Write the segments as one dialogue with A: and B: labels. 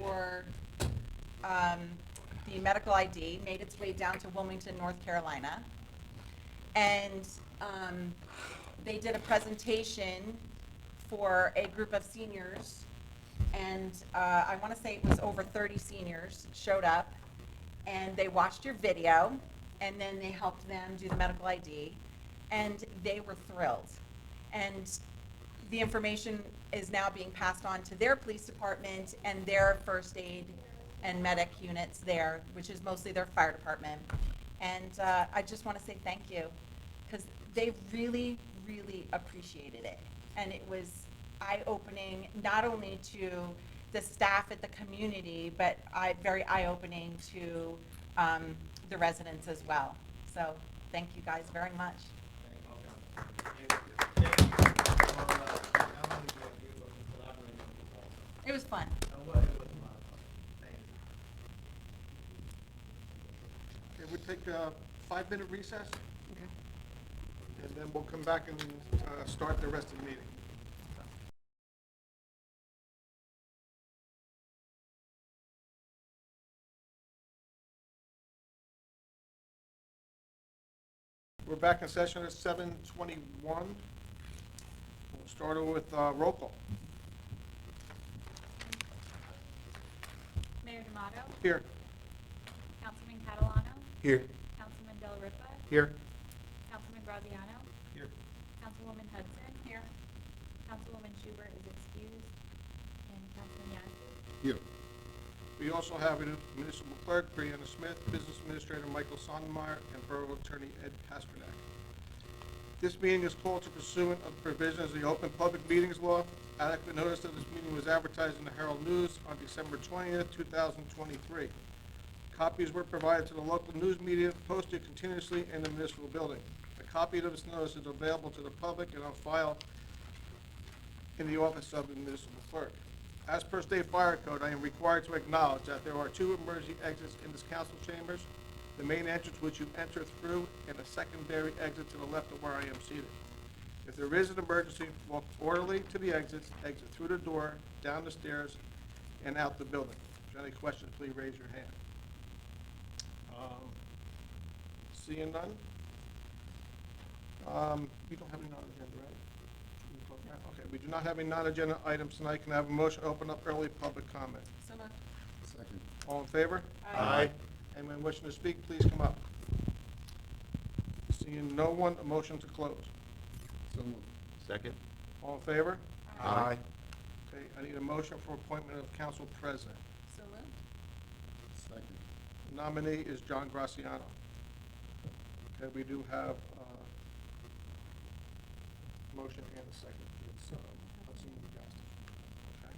A: for um, the medical ID made its way down to Wilmington, North Carolina. And um, they did a presentation for a group of seniors. And uh, I want to say it was over 30 seniors showed up. And they watched your video, and then they helped them do the medical ID. And they were thrilled. And the information is now being passed on to their police department and their first aid and medic units there, which is mostly their fire department. And uh, I just want to say thank you, because they really, really appreciated it. And it was eye-opening, not only to the staff at the community, but I, very eye-opening to um, the residents as well. So, thank you guys very much. It was fun.
B: Okay, we'll take a five-minute recess. And then we'll come back and uh, start the rest of the meeting. We're back in session at seven twenty-one. We'll start with uh, roll call.
C: Mayor D'Amato,
B: Here.
C: Councilman Catalano,
B: Here.
C: Councilman Del Ripa,
B: Here.
C: Councilman Graziano,
B: Here.
C: Councilwoman Hudson. Here. Councilwoman Schubert is excused, and Councilman Yasi.
B: Here. We also have municipal clerk Brianna Smith, business administrator Michael Sonnemeyer, and borough attorney Ed Pasternak. This meeting is called to pursuant of the provisions of the Open Public Meetings Law. Adequate notice of this meeting was advertised in the Herald News on December twentieth, two thousand twenty-three. Copies were provided to the local news media, posted continuously in the municipal building. A copy of this notice is available to the public and on file in the office of the municipal clerk. As per state fire code, I am required to acknowledge that there are two emergency exits in this council chambers, the main entrance which you enter through, and a secondary exit to the left of where I am seated. If there is an emergency, walk orderly to the exits, exit through the door, down the stairs, and out the building. If you have any questions, please raise your hand. Um, Seeing none? Um, We don't have any non-agenda, right? Should we close that? Okay, we do not have any non-agenda items tonight. Can I have a motion to open up early public comment?
A: So much.
D: Second.
B: All in favor?
A: Aye.
B: Anyone wishing to speak, please come up. Seeing no one, a motion to close.
D: So moved.
E: Second?
B: All in favor?
E: Aye.
B: Okay, I need a motion for appointment of council president.
A: So moved.
D: Second.
B: Nominee is John Graziano. Okay, we do have uh motion and a second. It's, um, Hudson and Gaston. Okay.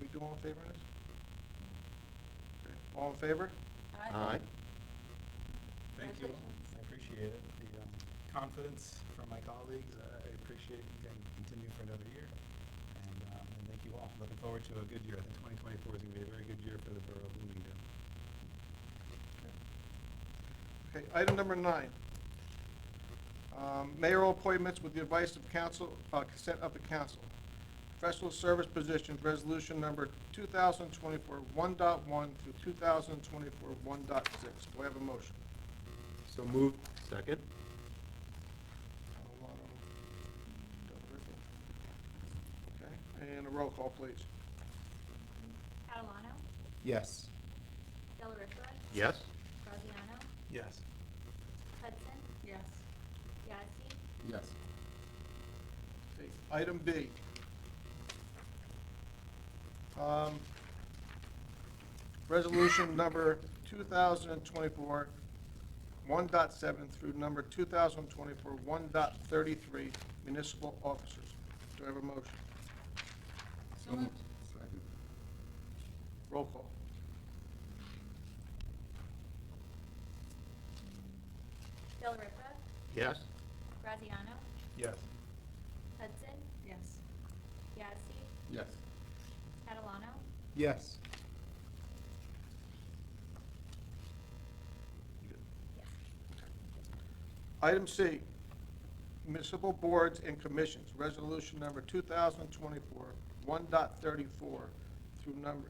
B: We do all in favor of this? Okay, All in favor?
E: Aye.
F: Thank you. I appreciate it. The um, confidence from my colleagues, uh, I appreciate you can continue for another year. And um, and thank you all. Looking forward to a good year. I think 2024 is going to be a very good year for the Borough of Bloomingdale.
B: Okay, item number nine. Um, Mayoral appointments with the advice of council, uh, consent of the council. Professional service positions, resolution number 2024-1.1 through 2024-1.6. Do I have a motion?
E: So moved. Second?
B: Okay, and a roll call, please.
C: Catalano,
D: Yes.
C: Del Ripa,
E: Yes?
C: Graziano,
F: Yes.
C: Hudson,
A: Yes.
C: Yazdi,
D: Yes.
B: Okay, Item B. Um, Resolution number 2024 1.7 through number 2024 1.33 municipal officers. Do I have a motion?
D: So moved. Second.
B: Roll call.
C: Del Ripa,
E: Yes?
C: Graziano,
F: Yes.
C: Hudson,
A: Yes.
C: Yazdi,
D: Yes.
C: Catalano,
D: Yes.
B: Item C, municipal boards and commissions, resolution number 2024 1.34 through number